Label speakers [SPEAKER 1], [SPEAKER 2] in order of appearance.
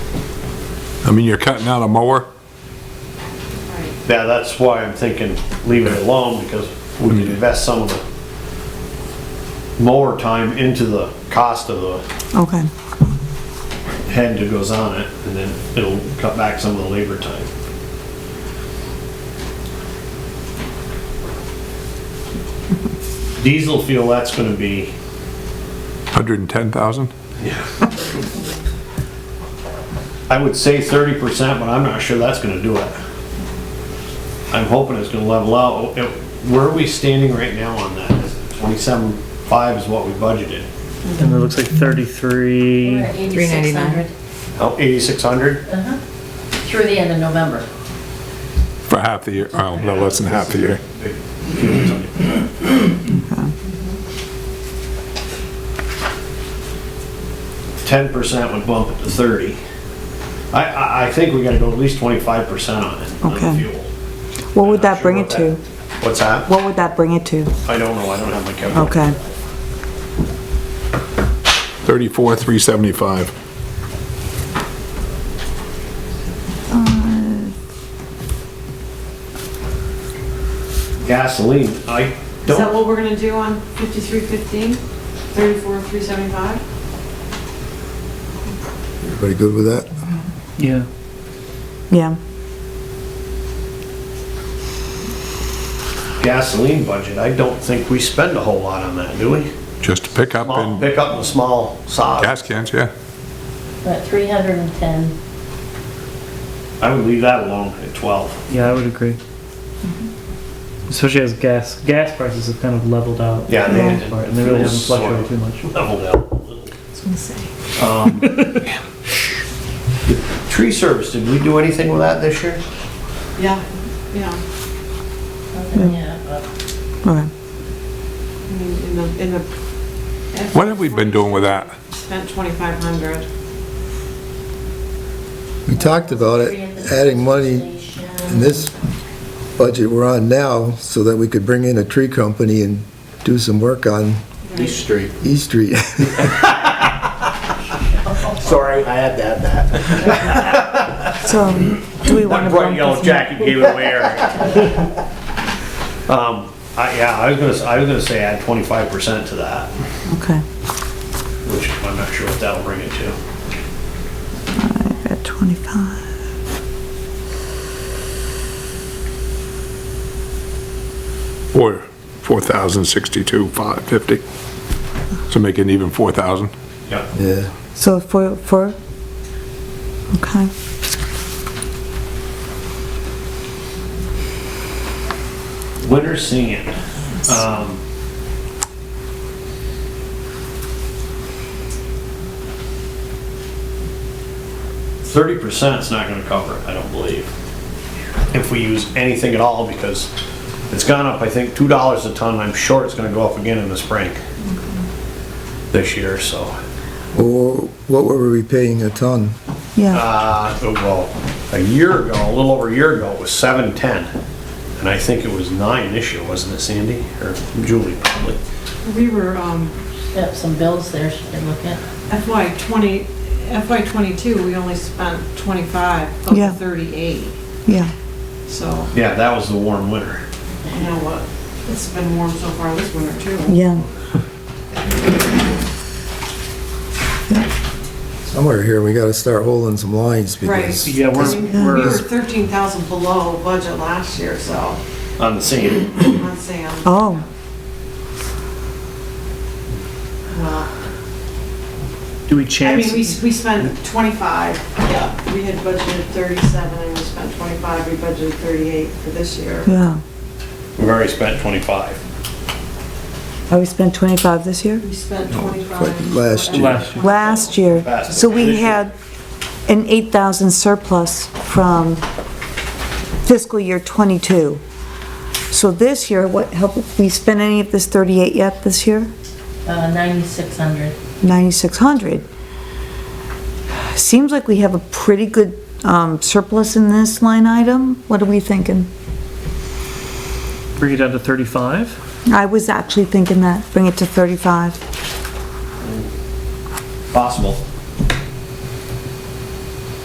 [SPEAKER 1] I mean, you're cutting out a mower,
[SPEAKER 2] Yeah, that's why I'm thinking leaving it alone, because we can invest some of the more time into the cost of the
[SPEAKER 3] Okay,
[SPEAKER 2] head that goes on it, and then it'll cut back some of the labor time. Diesel fuel, that's gonna be,
[SPEAKER 1] hundred and ten thousand?
[SPEAKER 2] I would say thirty percent, but I'm not sure that's gonna do it. I'm hoping it's gonna level out. It- Where are we standing right now on that? Twenty-seven five is what we budgeted.
[SPEAKER 4] And it looks like
[SPEAKER 5] We're
[SPEAKER 4] 33.
[SPEAKER 5] at 8,600
[SPEAKER 2] Oh, 8,600?
[SPEAKER 5] through the end of November.
[SPEAKER 1] For half the year, oh, no, less than half the year.
[SPEAKER 2] Ten percent would bump it to thirty. I, I, I think we gotta go at least twenty-five percent on it, on the
[SPEAKER 3] Okay.
[SPEAKER 2] fuel.
[SPEAKER 3] what would that bring it to?
[SPEAKER 2] What's that?
[SPEAKER 3] What would that bring it to?
[SPEAKER 2] I don't know, I don't have my calculator.
[SPEAKER 3] Okay,
[SPEAKER 1] Thirty-four, three seventy-five.
[SPEAKER 2] Gasoline, I
[SPEAKER 6] Is that
[SPEAKER 2] don't,
[SPEAKER 6] what we're gonna do on fifty-three fifteen, thirty-four, three seventy-five?
[SPEAKER 7] Everybody good with that?
[SPEAKER 4] Yeah.
[SPEAKER 3] yeah,
[SPEAKER 2] gasoline budget, I don't think we spend a whole lot on that, do we?
[SPEAKER 1] Just to pick up
[SPEAKER 2] Small
[SPEAKER 1] and
[SPEAKER 2] pickup and small sod.
[SPEAKER 1] gas cans, yeah.
[SPEAKER 5] We're at 310.
[SPEAKER 2] I would leave that alone at twelve.
[SPEAKER 4] Yeah, I would agree. Especially as gas gas prices have kind of leveled out.
[SPEAKER 2] Yeah,
[SPEAKER 4] for
[SPEAKER 2] they
[SPEAKER 4] the most
[SPEAKER 2] did.
[SPEAKER 4] part, and they really haven't
[SPEAKER 2] Sort of.
[SPEAKER 4] fluctuated too much.
[SPEAKER 2] Leveled out a little. Um, Tree service, did we do anything with that this year?
[SPEAKER 6] Yeah, yeah,
[SPEAKER 7] Hmm.
[SPEAKER 5] Yeah, but
[SPEAKER 3] okay.
[SPEAKER 6] I mean, in the, in the.
[SPEAKER 1] What have we been doing with that?
[SPEAKER 6] Spent twenty-five hundred.
[SPEAKER 7] We talked about it,
[SPEAKER 5] three at the
[SPEAKER 7] adding money in
[SPEAKER 5] station.
[SPEAKER 7] this budget we're on now so that we could bring in a tree company and do some work on
[SPEAKER 8] East Street.
[SPEAKER 7] East Street.
[SPEAKER 8] Sorry, I had to have that.
[SPEAKER 3] So, do we want
[SPEAKER 2] That
[SPEAKER 3] to
[SPEAKER 2] bright
[SPEAKER 3] bump
[SPEAKER 2] yellow
[SPEAKER 3] this?
[SPEAKER 2] jacket gave it away, Eric. Um, I, yeah, I was gonna, s- I was gonna say add twenty-five percent to that,
[SPEAKER 3] Okay,
[SPEAKER 2] which I'm not sure what that'll bring it to.
[SPEAKER 3] at 25.
[SPEAKER 1] Or four thousand sixty-two, five fifty. So make it even four thousand.
[SPEAKER 2] Yeah,
[SPEAKER 7] Yeah,
[SPEAKER 3] So for, for, okay.
[SPEAKER 2] winter sand. Um, Thirty percent's not gonna cover it, I don't believe. If we use anything at all, because it's gone up, I think, two dollars a ton, I'm sure it's gonna go up again in the spring. This year, so.
[SPEAKER 7] Or what were we paying a ton?
[SPEAKER 3] Yeah,
[SPEAKER 2] Uh, well, a year ago, a little over a year ago, it was seven ten, and I think it was nine this year, wasn't it, Sandy or Julie? Probably.
[SPEAKER 6] We were, um,
[SPEAKER 5] Got some bills there, should I look at?
[SPEAKER 6] FY twenty, FY twenty-two, we only spent twenty-five of
[SPEAKER 3] Yeah.
[SPEAKER 6] the thirty-eight,
[SPEAKER 3] yeah,
[SPEAKER 6] so,
[SPEAKER 2] Yeah, that was the warm winter.
[SPEAKER 6] you know what? It's been warm so far this winter too.
[SPEAKER 3] yeah.
[SPEAKER 7] Somewhere here, we gotta start holding some lines because
[SPEAKER 4] Yeah,
[SPEAKER 6] I mean,
[SPEAKER 4] we're,
[SPEAKER 6] We were
[SPEAKER 4] we're
[SPEAKER 6] thirteen thousand below budget last year, so,
[SPEAKER 2] On the sand.
[SPEAKER 6] I'm saying,
[SPEAKER 3] Oh,
[SPEAKER 6] well.
[SPEAKER 4] do we
[SPEAKER 6] I
[SPEAKER 4] chance?
[SPEAKER 6] mean, we, we spent 25, yeah, we had budgeted 37, and we spent 25, we budgeted 38 for this year.
[SPEAKER 3] yeah.
[SPEAKER 2] We've already spent twenty-five.
[SPEAKER 3] Oh, we spent 25 this year?
[SPEAKER 6] We spent
[SPEAKER 7] quite
[SPEAKER 6] 25.
[SPEAKER 7] last year.
[SPEAKER 4] last year.
[SPEAKER 3] Last year,
[SPEAKER 2] Last
[SPEAKER 3] so we
[SPEAKER 2] year.
[SPEAKER 3] had an 8,000 surplus from fiscal year '22. So this year, what, help, we spent any of this 38 yet this year?
[SPEAKER 5] Uh, 9,600.
[SPEAKER 3] 9,600. Seems like we have a pretty good um, surplus in this line item. What are we thinking?
[SPEAKER 4] Bring it down to 35.
[SPEAKER 3] I was actually thinking that, bring it to 35.
[SPEAKER 2] Possible.